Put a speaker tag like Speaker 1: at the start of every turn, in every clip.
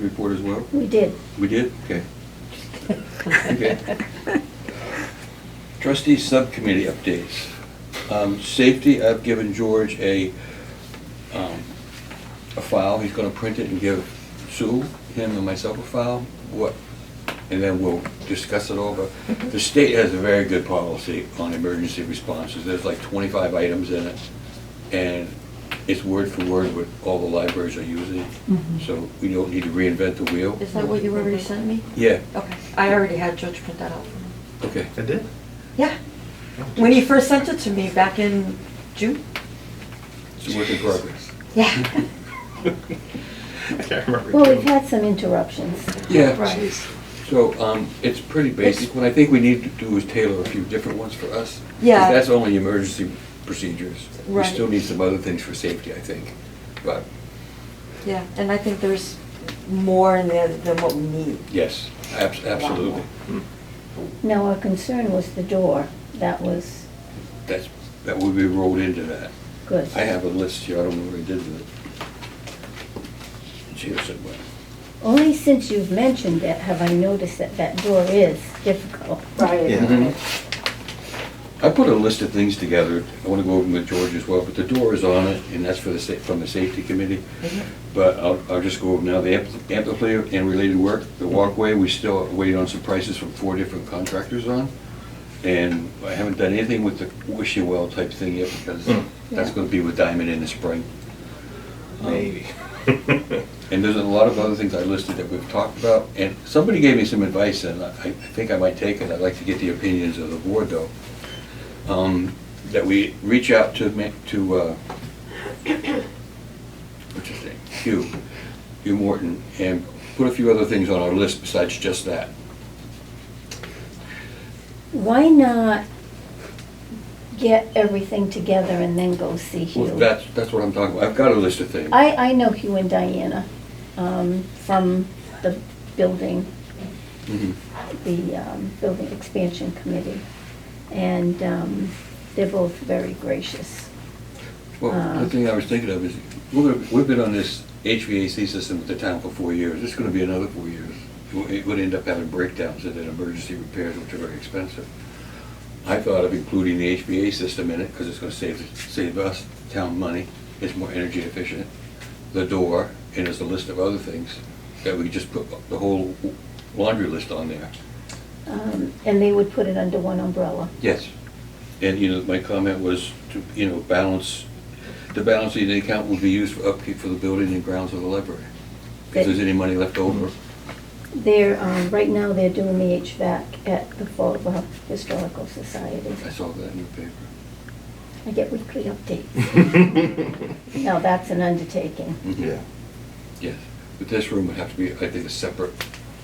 Speaker 1: report as well?
Speaker 2: We did.
Speaker 1: We did? Okay. Okay. Trustee subcommittee updates. Um, Safety, I've given George a, um, a file, he's gonna print it and give Sue, him and myself a file, what, and then we'll discuss it over. The state has a very good policy on emergency responses, there's like twenty-five items in it, and it's word for word what all the libraries are using, so we don't need to reinvent the wheel.
Speaker 3: Is that what you already sent me?
Speaker 1: Yeah,
Speaker 3: Okay, I already had George print that out for me.
Speaker 1: okay.
Speaker 4: I did?
Speaker 3: Yeah, when he first sent it to me back in June.
Speaker 1: It's a work in progress.
Speaker 3: Yeah.
Speaker 4: Can't remember.
Speaker 2: Well, we've had some interruptions.
Speaker 1: Yeah,
Speaker 3: Right.
Speaker 1: so um, it's pretty basic. What I think we need to do is tailor a few different ones for us. 'cause
Speaker 3: Yeah.
Speaker 1: that's only emergency procedures. We
Speaker 3: Right.
Speaker 1: still need some other things for safety, I think. But,
Speaker 3: Yeah, and I think there's more in there than what we need.
Speaker 1: yes, abs- absolutely.
Speaker 2: Now, our concern was the door. That was
Speaker 1: That's, that would be rolled into that.
Speaker 2: good.
Speaker 1: I have a list here, I don't know where I did it. It's here somewhere.
Speaker 2: Only since you've mentioned it have I noticed that that door is difficult.
Speaker 4: Yeah.
Speaker 1: Mhm. I put a list of things together. I want to go over them with George as well, but the door is on it, and that's for the, sa- from the safety committee. But I'll, I'll just go over now, the ampli- amplifier and related work, the walkway, we still waiting on some prices from four different contractors on. And I haven't done anything with the wishing well type thing yet, because
Speaker 4: Mm.
Speaker 1: that's
Speaker 2: Yeah.
Speaker 1: gonna be with Diamond in the spring. Um,
Speaker 4: Maybe.
Speaker 1: And there's a lot of other things I listed that we've talked about, and somebody gave me some advice, and I I think I might take it, I'd like to get the opinions of the board, though. Um, That we reach out to, ma- to, uh, what's his name, Hugh, Hugh Morton, and put a few other things on our list besides just that.
Speaker 2: Why not get everything together and then go see
Speaker 1: Well,
Speaker 2: Hugh?
Speaker 1: That's, that's what I'm talking about, I've got a list of things.
Speaker 2: I, I know Hugh and Diana um, from the building,
Speaker 1: Mhm.
Speaker 2: the um, Building Expansion Committee. And um, they're both very gracious.
Speaker 1: Well,
Speaker 2: Uh.
Speaker 1: the thing I was thinking of is, we're gonna- we've been on this HVAC system with the town for four years, it's gonna be another four years. It would- It would end up having breakdowns and then emergency repairs, which are very expensive. I thought of including the HVAC system in it, because it's gonna save, save us, town money, it's more energy efficient. The door, and there's a list of other things, that we just put the whole laundry list on there.
Speaker 2: Um, And they would put it under one umbrella.
Speaker 1: Yes. And, you know, my comment was to, you know, balance, the balance in the account would be used for upkeep for the building and grounds of the library. If there's any money left over.
Speaker 2: They're, um, right now, they're doing the HVAC at the Fallbrook Historical Society.
Speaker 1: I saw that in the paper.
Speaker 2: I get weekly updates. Now, that's an undertaking.
Speaker 1: Mhm.
Speaker 4: Yeah.
Speaker 1: Yes. But this room would have to be, I think, a separate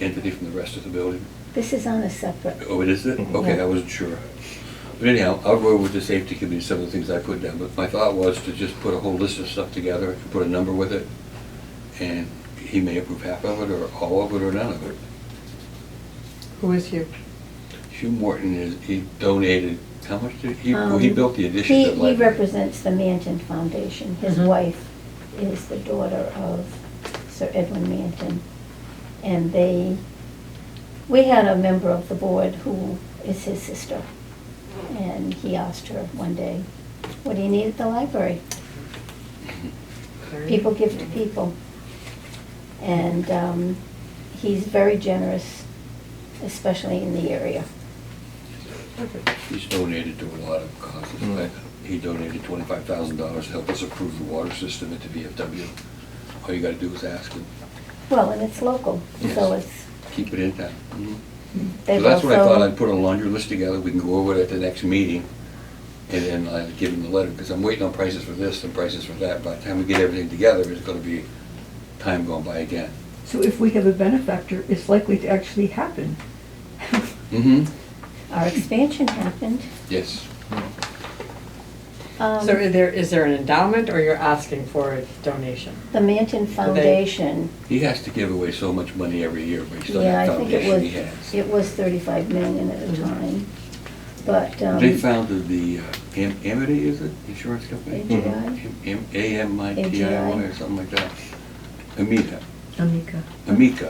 Speaker 1: entity from the rest of the building.
Speaker 2: This is on a separate,
Speaker 1: Oh, it is it?
Speaker 4: Mhm.
Speaker 1: Okay,
Speaker 2: Yeah.
Speaker 1: I wasn't sure. But anyhow, I'll go with the safety committee, some of the things I put down, but my thought was to just put a whole list of stuff together, put a number with it, and he may approve half of it, or all of it, or none of it.
Speaker 3: Who is you?
Speaker 1: Hugh Morton is, he donated, how much did, he, well,
Speaker 2: um,
Speaker 1: he built the addition
Speaker 2: he-
Speaker 1: to the library.
Speaker 2: He represents the Manton Foundation. His
Speaker 3: Mhm.
Speaker 2: wife is the daughter of Sir Edwin Manton. And they, we had a member of the board who is his sister. And he asked her one day, what do you need at the library? people give to people. And um, he's very generous, especially in the area.
Speaker 1: He's donated to a lot of causes.
Speaker 4: Mm.
Speaker 1: Like, He donated twenty-five thousand dollars to help us improve the water system at the VFW. All you gotta do is ask him,
Speaker 2: Well, and it's local, so
Speaker 1: Yes.
Speaker 2: it's,
Speaker 1: keep it in town. So
Speaker 2: they've
Speaker 1: that's what I thought,
Speaker 2: also,
Speaker 1: I'd put a laundry list together, we can go over it at the next meeting, and then I'll give him the letter, because I'm waiting on prices for this and prices for that. By the time we get everything together, it's gonna be time gone by again.
Speaker 5: So if we have a benefactor, it's likely to actually happen.
Speaker 1: Mm-hmm,
Speaker 2: our expansion happened.
Speaker 1: yes.
Speaker 2: Um,
Speaker 6: So is there, is there an endowment or you're asking for a donation?
Speaker 2: The Manton Foundation,
Speaker 1: He has to give away so much money every year based on
Speaker 2: yeah,
Speaker 1: the
Speaker 2: I think it
Speaker 1: foundation he
Speaker 2: was,
Speaker 1: has. Mm-hmm.
Speaker 2: it was 35 million at a
Speaker 6: Mhm.
Speaker 2: time. But, um,
Speaker 1: They founded the uh, Am- Amity, is it, insurance company?
Speaker 2: AGI?
Speaker 1: Am- Am- AMITIY or something like that. Amita,
Speaker 5: Amika.
Speaker 1: Amika.